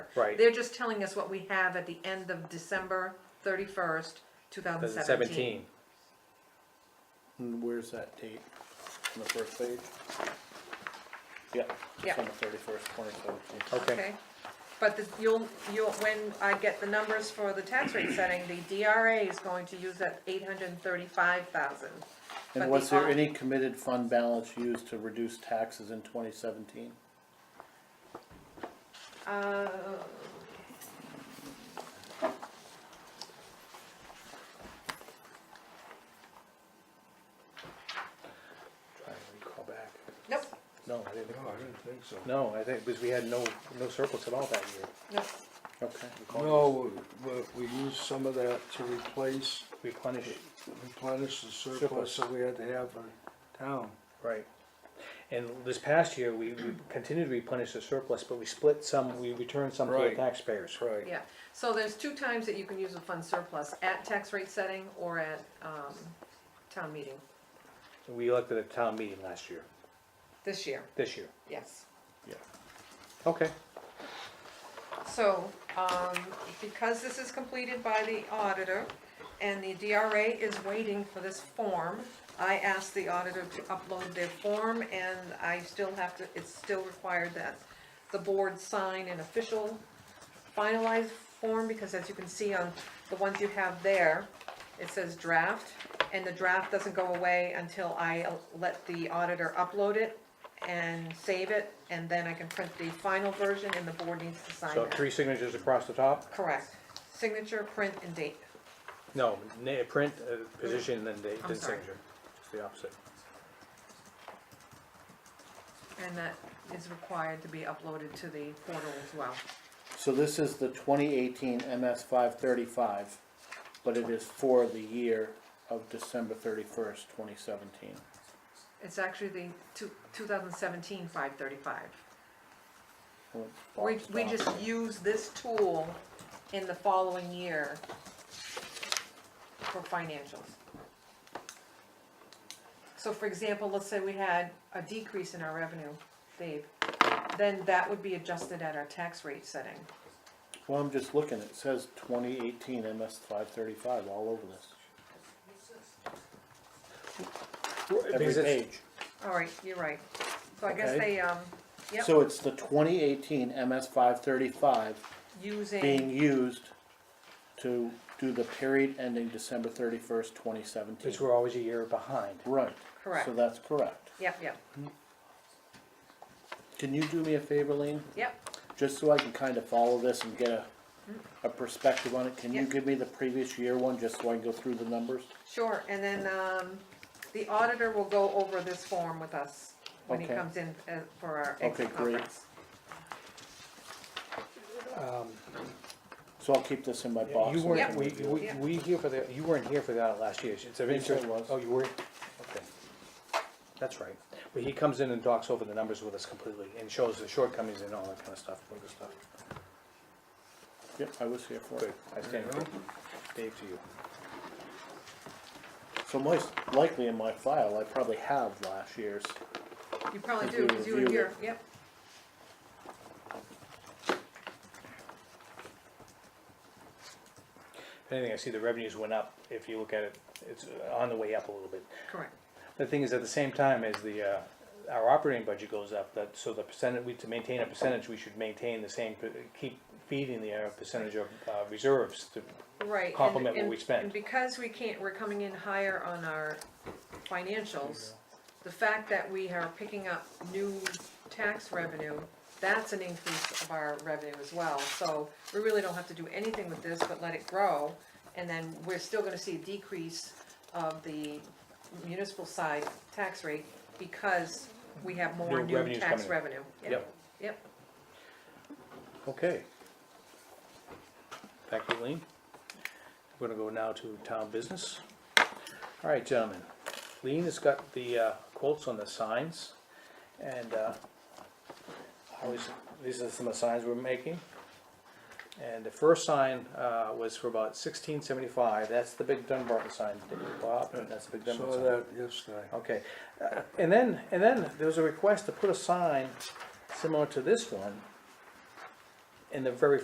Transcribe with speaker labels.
Speaker 1: Right.
Speaker 2: They're just telling us what we have at the end of December thirty-first, two thousand seventeen.
Speaker 1: seventeen.
Speaker 3: And where's that date? On the first page? Yep.
Speaker 2: Yeah.
Speaker 3: It's on the thirty-first, twenty seventeen.
Speaker 1: Okay.
Speaker 2: But the, you'll, you'll, when I get the numbers for the tax rate setting, the DRA is going to use that eight hundred and thirty-five thousand.
Speaker 3: And was there any committed fund balance used to reduce taxes in twenty seventeen?
Speaker 2: Uh,
Speaker 3: Trying to recall back.
Speaker 2: nope,
Speaker 3: No, I didn't.
Speaker 4: No, I didn't think so.
Speaker 3: No, I think, because we had no, no surplus at all that year.
Speaker 2: nope,
Speaker 3: Okay.
Speaker 4: No, but we used some of that to replace,
Speaker 3: Replenish,
Speaker 4: replenish the surplus that we had to have for town.
Speaker 3: right. And this past year, we we continued to replenish the surplus, but we split some, we returned some to the
Speaker 4: Right.
Speaker 3: taxpayers.
Speaker 4: right.
Speaker 2: yeah. So there's two times that you can use a fund surplus, at tax rate setting or at, um, town meeting,
Speaker 3: We elected a town meeting last year,
Speaker 2: this year,
Speaker 3: this year.
Speaker 2: yes.
Speaker 3: Okay.
Speaker 2: So, um, because this is completed by the auditor and the DRA is waiting for this form, I asked the auditor to upload their form and I still have to, it's still required that the board sign an official finalized form because as you can see on the ones you have there, it says draft and the draft doesn't go away until I let the auditor upload it and save it and then I can print the final version and the board needs to sign
Speaker 3: So
Speaker 2: that.
Speaker 3: three signatures across the top?
Speaker 2: Correct. Signature, print and date.
Speaker 3: No, na- print, uh, position, then date,
Speaker 2: I'm
Speaker 3: then
Speaker 2: sorry.
Speaker 3: signature. It's the opposite.
Speaker 2: And that is required to be uploaded to the portal as well.
Speaker 5: So this is the twenty eighteen MS five thirty-five, but it is for the year of December thirty-first, twenty seventeen.
Speaker 2: It's actually the two, 2017 535.
Speaker 5: Oh,
Speaker 2: We, we just use this tool in the following year for financials. So for example, let's say we had a decrease in our revenue, Dave, then that would be adjusted at our tax rate setting.
Speaker 5: Well, I'm just looking, it says twenty eighteen MS five thirty-five all over this,
Speaker 3: Because
Speaker 5: every
Speaker 3: it's-
Speaker 5: page.
Speaker 2: All right, you're right. So I guess
Speaker 5: Okay.
Speaker 2: they, um, yep,
Speaker 5: So it's the twenty eighteen MS five thirty-five being
Speaker 2: using,
Speaker 5: used to do the period ending December thirty-first, twenty seventeen.
Speaker 3: Because we're always a year behind.
Speaker 5: Right.
Speaker 2: Correct.
Speaker 5: So that's correct.
Speaker 2: yep, yep,
Speaker 5: Can you do me a favor, Lean?
Speaker 2: yep,
Speaker 5: just so I can kind of follow this and get a, a perspective on it, can you
Speaker 2: Yeah.
Speaker 5: give me the previous year one, just so I can go through the numbers?
Speaker 2: sure. And then, um, the auditor will go over this form with us when he
Speaker 5: Okay.
Speaker 2: comes in uh, for our
Speaker 5: Okay,
Speaker 2: exit
Speaker 5: great.
Speaker 2: conference.
Speaker 5: So I'll keep this in my box.
Speaker 3: You
Speaker 5: and
Speaker 3: weren't,
Speaker 2: Yep.
Speaker 5: can
Speaker 3: we,
Speaker 5: review
Speaker 3: we,
Speaker 2: Yeah.
Speaker 3: we here for the, you weren't here for that last year. It's of
Speaker 5: Yes, I
Speaker 3: interest.
Speaker 5: was.
Speaker 3: Oh, you were? Okay. That's right. But he comes in and talks over the numbers with us completely and shows the shortcomings and all that kind of stuff, all this stuff.
Speaker 5: it. Yep, I was here for
Speaker 3: Good.
Speaker 5: it.
Speaker 3: I stand corrected. Dave to you.
Speaker 5: So most likely in my file, I probably have last year's.
Speaker 2: You probably
Speaker 5: Could
Speaker 2: do,
Speaker 5: we
Speaker 2: because you were
Speaker 5: review
Speaker 2: here,
Speaker 5: it?
Speaker 2: yep.
Speaker 3: If anything, I see the revenues went up. If you look at it, it's uh, on the way up a little bit.
Speaker 2: Correct.
Speaker 3: The thing is, at the same time as the, uh, our operating budget goes up, that, so the percentage, we, to maintain a percentage, we should maintain the same, per- keep feeding the uh, percentage of uh, reserves to,
Speaker 2: Right. and-
Speaker 3: Complement what
Speaker 2: and-
Speaker 3: we spent.
Speaker 2: And because we can't, we're coming in higher on our financials, the fact that we are picking up new tax revenue, that's an increase of our revenue as well. So we really don't have to do anything with this, but let it grow. And then we're still gonna see a decrease of the municipal side tax rate because we have more
Speaker 3: New
Speaker 2: new
Speaker 3: revenues
Speaker 2: tax
Speaker 3: coming in.
Speaker 2: revenue.
Speaker 3: Yep.
Speaker 2: Yep,
Speaker 3: okay. Thank you, Lean. We're gonna go now to town business. All right, gentlemen, Lean has got the uh, quotes on the signs, and, uh, I was, these are some of the signs we're making. And the first sign, uh, was for about sixteen seventy-five, that's the big Dunbarton sign, Bob, that's the big Dunbarton sign.
Speaker 4: Saw that yesterday.
Speaker 3: Okay, Uh, and then, and then there was a request to put a sign similar to this one in the very